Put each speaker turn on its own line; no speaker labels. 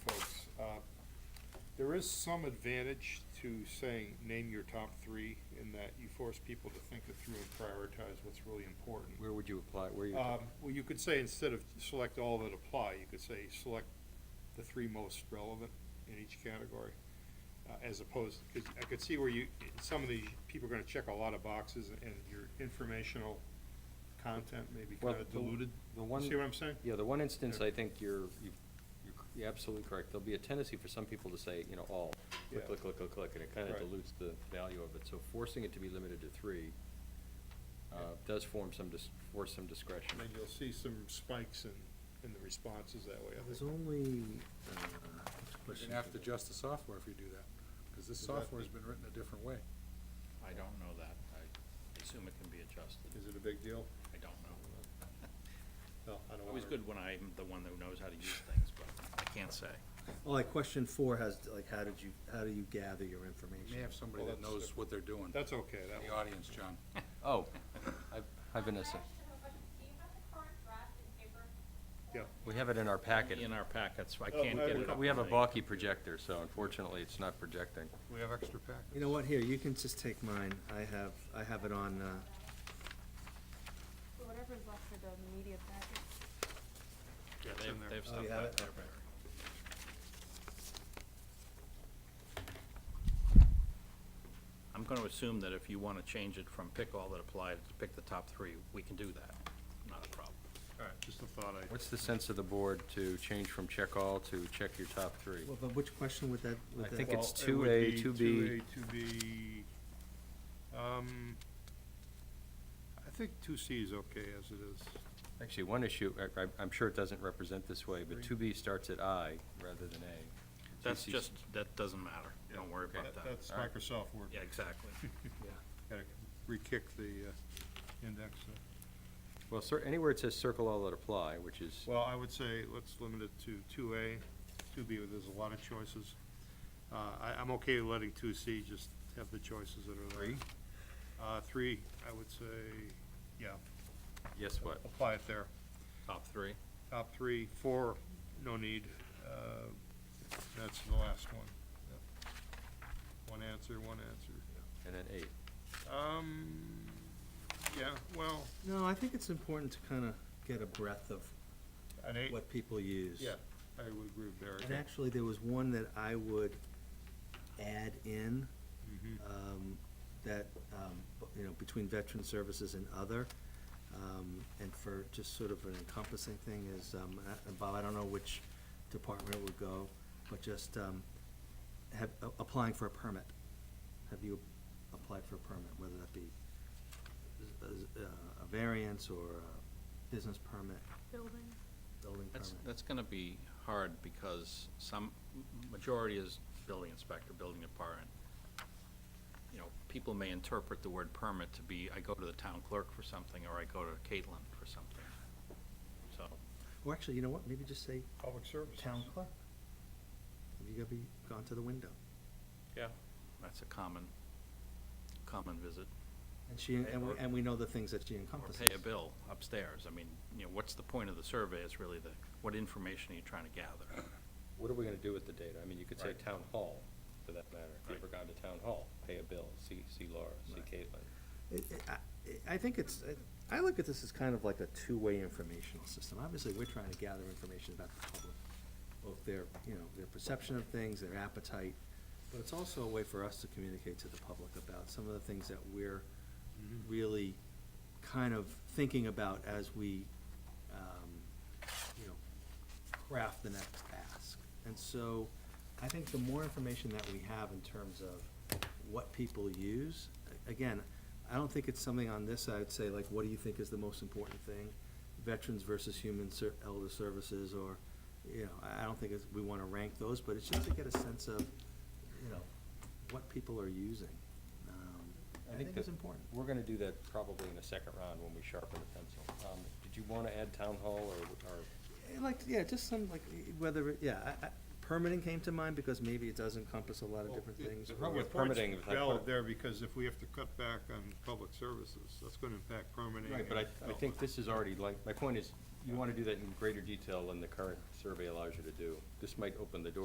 uh, there is some advantage to saying, name your top three, in that you force people to think it through and prioritize what's really important.
Where would you apply, where you?
Um, well, you could say instead of select all that apply, you could say select the three most relevant in each category. Uh, as opposed, cause I could see where you, some of these, people are gonna check a lot of boxes and your informational content may be
Well,
kinda
the-
diluted.
the one-
See what I'm saying?
Yeah, the one instance,
Yeah.
I think you're, you- you're c- you're absolutely correct. There'll be a tendency for some people to say, you know, all,
Yeah.
click, click, click, click, click, and it kind of
Right.
dilutes the value of it. So forcing it to be limited to three uh,
Yeah.
does form some, dis- force some discretion.
And you'll see some spikes in, in the responses that way. I
There's
think.
only, uh,
You're gonna have to adjust the software if you do that, because this
Is that
software's been written a different way.
I don't know that. I assume it can be adjusted.
Is it a big deal?
I don't know.
No, I don't
Always
wanna-
good when I'm the one that knows how to use things, but I can't say.
well, like question four has, like, how did you, how do you gather your
You may
information?
have somebody
Well,
that
that's
knows what they're doing.
That's okay, that
The
one.
audience, John.
Oh, hi- hi Vanessa.
I actually have a question. Do you have the current draft in paper?
Yeah.
We have it in our packet.
In our packets, I
Oh,
can't
I have
get it.
a
up
We have a
tonight.
balky projector, so unfortunately, it's not projecting.
We have extra packets.
You know what, here, you can just take mine, I have, I have it on, uh,
Well, Whatever's left for the media packet.
Yeah, they have, they have
Oh,
stuff
you have
back
it?
there,
Okay.
but- I'm gonna assume that if you wanna change it from pick all that apply to pick the top three, we can do that. Not a problem.
All right, just a thought I.
What's the sense of the board to change from check all to check your top three?
well, but which question would that, would
I
that?
think it's
Well, it
2A,
would be
2B.
2A, 2B, um, I think 2C is okay as it is.
Actually, one issue, I- I- I'm sure it doesn't represent this way, but 2B starts at I rather than A.
That's
2C
just, that doesn't matter. Don't worry about that.
That's
All right.
Microsoft Word.
Yeah, exactly.
Gotta re-kick the uh, index. there.
Well, cer- anywhere it says circle all that apply, which is,
Well, I would say let's limit it to 2A, 2B, where there's a lot of choices. Uh, I, I'm okay with letting 2C just have the choices that are there. Three? Uh, three, I would say, yeah,
yes, what?
apply it there.
Top three.
Top three, four, no need. Uh, That's the last one. Yep. One answer, one answer.
And then eight.
Um, yeah, well,
No, I think it's important to kinda get a breadth of
an eight,
what people use.
yeah, I would agree with Barry.
And actually, there was one that I would add in,
Mhm.
Mm-hmm.
um, that, um, bu- you know, between veteran services and other, um, and for just sort of an encompassing thing is, um, uh, and Bob, I don't know which department it would go, but just, um, have, a- applying for a permit. Have you applied for a permit, whether that be a- a, a variance or a business permit,
Building.
building
That's,
permit?
that's gonna be hard because some, majority is building inspector, building department. You know, people may interpret the word permit to be, I go to the town clerk for something, or I go to Caitlin for something. So,
Or actually, you know what, maybe just say
Public service.
town clerk. You gotta be, gone to the window.
yeah, that's a common, common visit.
And she, and we, and we know the things that she
Or
encompasses.
pay a bill upstairs. I mean, you know, what's the point of the survey? It's really the, what information are you trying to gather?
What are we gonna do with the data? I mean, you could say
Right.
town hall, for that matter. If you
Right.
ever gone to town hall, pay a bill, see, see Laura, see
Right.
Caitlin.
It- it- I- I think it's, it- I look at this as kind of like a two-way informational system. Obviously, we're trying to gather information about the public, both their, you know, their perception of things, their appetite, but it's also a way for us to communicate to the public about some of the things that we're really kind of thinking about as we, um, you know, craft the next ask. And so I think the more information that we have in terms of what people use, a- again, I don't think it's something on this, I'd say, like, what do you think is the most important thing? Veterans versus human ser- elder services, or, you know, I I don't think it's, we wanna rank those, but it's just to get a sense of, you know, what people are using. Um, I think
that
it's important.
We're gonna do that probably in the second round when we sharpen the pencil. Um, Did you wanna add town hall or, or?
Yeah, Like, yeah, just some, like, eh, whether, it- yeah, I, I, permitting came to mind because maybe it does encompass a lot of
Well,
different
Oh, it-
things.
the
or-
problem
Yeah,
with points
permitting, if I
valid
put it-
there, because if we have to cut back on public services, that's gonna impact permitting.
Right, but I,
and-
I think this is already like, my point is, you wanna do that in greater detail than the current survey allows you to do. This might open the door